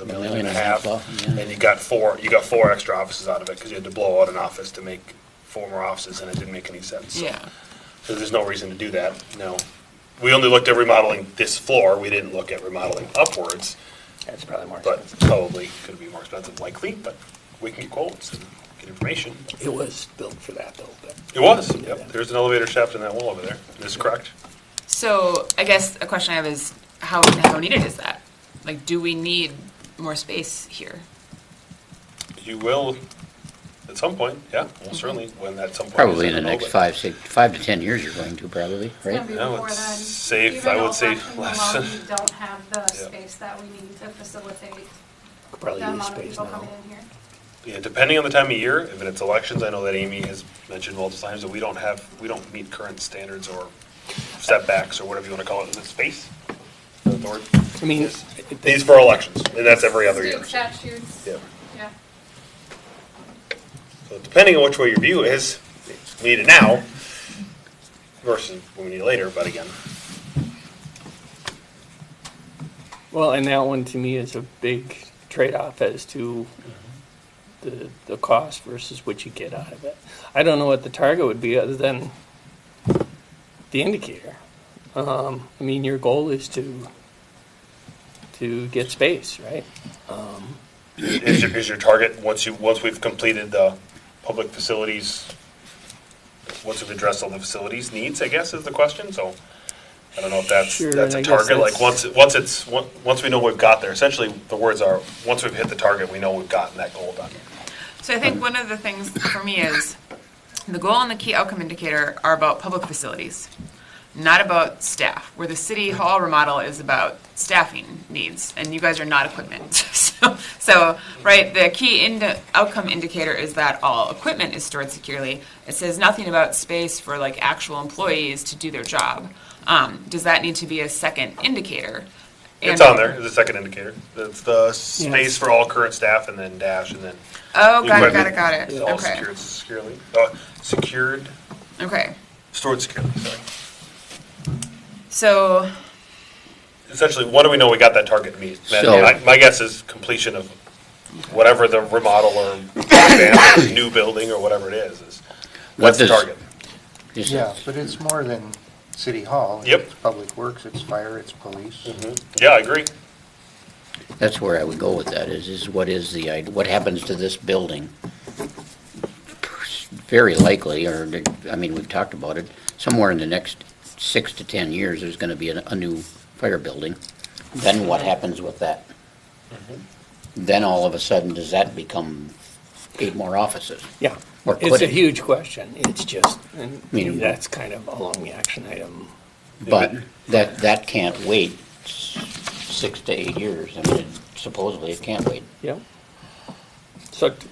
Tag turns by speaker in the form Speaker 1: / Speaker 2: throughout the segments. Speaker 1: a
Speaker 2: million and a half off, yeah.
Speaker 1: And you got four, you got four extra offices out of it, because you had to blow out an office to make four more offices, and it didn't make any sense. So-
Speaker 3: Yeah,
Speaker 1: So there's no reason to do that, no. We only looked at remodeling this floor, we didn't look at remodeling upwards,
Speaker 4: That's probably more
Speaker 1: but
Speaker 4: expensive.
Speaker 1: probably could be more expensive likely, but we can get quotes and get information.
Speaker 5: It was built for that though, but
Speaker 1: It was, yep, there's an elevator shaft in that wall over there, that's correct.
Speaker 3: so I guess a question I have is, how, how needed is that? Like, do we need more space here?
Speaker 1: You will, at some point, yeah, well, certainly, when at some point.
Speaker 2: Probably
Speaker 1: is, I
Speaker 2: in the
Speaker 1: don't know,
Speaker 2: next
Speaker 1: but-
Speaker 2: five, six, five to 10 years you're going to probably,
Speaker 6: It's gonna
Speaker 2: right?
Speaker 6: be
Speaker 1: Yeah, I would
Speaker 6: before then.
Speaker 1: save- I would say less.
Speaker 6: Even though we don't have the
Speaker 1: Yeah.
Speaker 6: space that we need to facilitate
Speaker 5: could
Speaker 6: the
Speaker 5: probably use
Speaker 6: amount of
Speaker 5: space
Speaker 6: people
Speaker 5: now.
Speaker 6: coming in here.
Speaker 1: Yeah, depending on the time of year, if it's elections, I know that Amy has mentioned multiple times that we don't have, we don't meet current standards or setbacks or whatever you want to call it, is it space? Is that the word?
Speaker 5: I mean,
Speaker 1: These for elections, and that's every other year.
Speaker 6: State statutes,
Speaker 1: Yeah.
Speaker 6: yeah.
Speaker 1: So depending on which way your view is, we need it now versus when we need it later, but again,
Speaker 5: well, and that one to me is a big trade-off as to the, the cost versus what you get out of it. I don't know what the target would be other than the indicator. Um, I mean, your goal is to, to get space, right?
Speaker 1: is your, is your target, once you, once we've completed the public facilities, once we've addressed all the facilities needs, I guess, is the question, so I don't know if that's,
Speaker 5: Sure,
Speaker 1: that's
Speaker 5: I
Speaker 1: a
Speaker 5: guess
Speaker 1: target, like,
Speaker 5: that's-
Speaker 1: once, once it's, on- once we know we've got there, essentially, the words are, once we've hit the target, we know we've gotten that goal done.
Speaker 3: So I think one of the things for me is, the goal and the key outcome indicator are about public facilities, not about staff, where the city hall remodel is about staffing needs, and you guys are not equipment. So, so, right, the key ind- outcome indicator is that all equipment is stored securely. It says nothing about space for like actual employees to do their job. Um, Does that need to be a second indicator?
Speaker 1: It's
Speaker 3: And-
Speaker 1: on there, it's a second indicator, it's the space for all current staff, and then dash, and then.
Speaker 3: Oh, got it, got it,
Speaker 1: equipment.
Speaker 3: got it.
Speaker 1: It's all
Speaker 3: Okay,
Speaker 1: secured securely, uh, secured,
Speaker 3: okay.
Speaker 1: stored securely, sorry.
Speaker 3: So,
Speaker 1: essentially, what do we know we got that target to meet? And
Speaker 2: So-
Speaker 1: I- My guess is completion of whatever the remodel or revamp or new building or whatever it is, is,
Speaker 2: What
Speaker 1: that's the
Speaker 2: does-
Speaker 1: target.
Speaker 2: Just-
Speaker 4: Yeah, but it's more than City Hall.
Speaker 1: Yep.
Speaker 4: It's Public Works, it's fire, it's police.
Speaker 1: Yeah, I agree.
Speaker 2: That's where I would go with that, is, is what is the, id- what happens to this building? Very likely, or, I mean, we've talked about it, somewhere in the next six to 10 years, there's going to be a, a new fire building. Then what happens with that?
Speaker 5: Mm-hmm.
Speaker 2: Then all of a sudden, does that become eight more offices?
Speaker 5: Yeah.
Speaker 2: Or
Speaker 5: It's
Speaker 2: could
Speaker 5: a
Speaker 2: it?
Speaker 5: huge question. It's just, and
Speaker 2: Meaning-
Speaker 5: that's kind of along the action item.
Speaker 2: But that, that can't wait s- six to eight years. I mean, supposedly it can't wait.
Speaker 5: Yep. So t-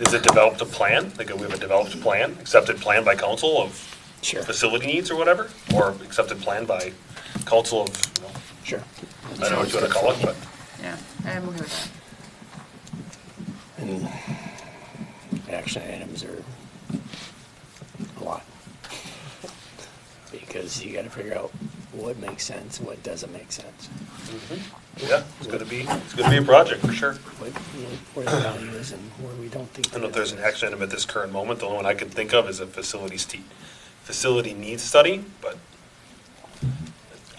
Speaker 1: Is it developed a plan? Like, we have a developed plan, accepted plan by council of
Speaker 5: Sure,
Speaker 1: facility needs or whatever? Or accepted plan by council of, you know,
Speaker 5: sure.
Speaker 1: I don't know what you want to call it, but
Speaker 3: yeah, I'm okay with that.
Speaker 5: And action items are a lot. Because you gotta figure out what makes sense, what doesn't make sense,
Speaker 1: yeah, it's going to be, it's going to be a project for sure.
Speaker 5: what, what- where the value is and where we don't think.
Speaker 1: I don't know if there's an action item at this current moment. The only one I can think of is a facilities te- facility needs study, but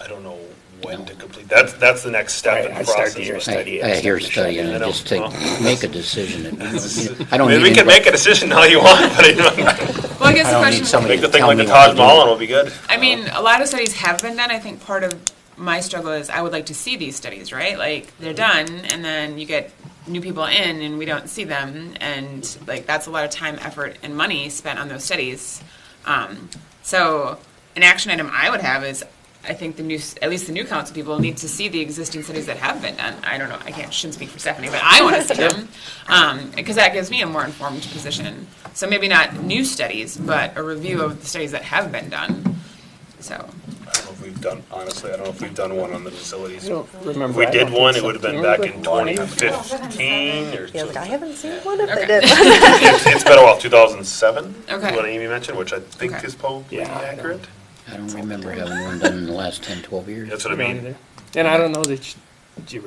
Speaker 1: I don't know when to complete. That's, that's the next step
Speaker 5: Right,
Speaker 1: in
Speaker 5: I
Speaker 1: the
Speaker 5: start the year
Speaker 1: process. but-
Speaker 5: study.
Speaker 2: I, I hear
Speaker 5: start the
Speaker 2: study
Speaker 5: shut-in.
Speaker 2: and I
Speaker 1: I
Speaker 2: just
Speaker 1: know.
Speaker 2: take, make a decision. and- I
Speaker 1: I
Speaker 2: don't
Speaker 1: mean, we
Speaker 2: need
Speaker 1: can make a
Speaker 2: anybody,
Speaker 1: decision all you want, but you know,
Speaker 3: Well, I
Speaker 2: I don't
Speaker 3: guess the
Speaker 2: need
Speaker 3: question,
Speaker 2: somebody
Speaker 1: make the
Speaker 2: to
Speaker 1: thing
Speaker 2: tell
Speaker 1: like the
Speaker 2: me what
Speaker 1: Taj
Speaker 2: to do.
Speaker 1: Mahal and it'll be good.
Speaker 3: I mean, a lot of studies have been done. I think part of my struggle is I would like to see these studies, right? Like they're done, and then you get new people in, and we don't see them, and like that's a lot of time, effort, and money spent on those studies. Um, so, an action item I would have is. I think the new, at least the new council people need to see the existing studies that have been done. I don't know, I can't, shouldn't speak for Stephanie, but I want to see them. Um, because that gives me a more informed position. So maybe not new studies, but a review of the studies that have been done. So,
Speaker 1: I don't know if we've done, honestly, I don't know if we've done one on the facilities.
Speaker 5: I don't
Speaker 1: If
Speaker 5: remember.
Speaker 1: we
Speaker 5: I
Speaker 1: did
Speaker 5: don't
Speaker 1: one, it
Speaker 5: think
Speaker 1: would have
Speaker 5: so.
Speaker 1: been
Speaker 5: Do you
Speaker 1: back in
Speaker 5: remember
Speaker 1: twenty fifteen or
Speaker 7: Yeah, like, I
Speaker 1: something.
Speaker 7: haven't seen one of
Speaker 3: Okay.
Speaker 7: them.
Speaker 1: It's it's been a while, two thousand and seven,
Speaker 3: Okay.
Speaker 1: what Amy mentioned, which I think
Speaker 3: Okay.
Speaker 1: is probably
Speaker 5: Yeah, I don't-
Speaker 1: accurate.
Speaker 2: I don't remember having one done in the last 10, 12 years.
Speaker 1: That's what I
Speaker 5: Around
Speaker 1: mean.
Speaker 5: there. And I don't know that, you- do you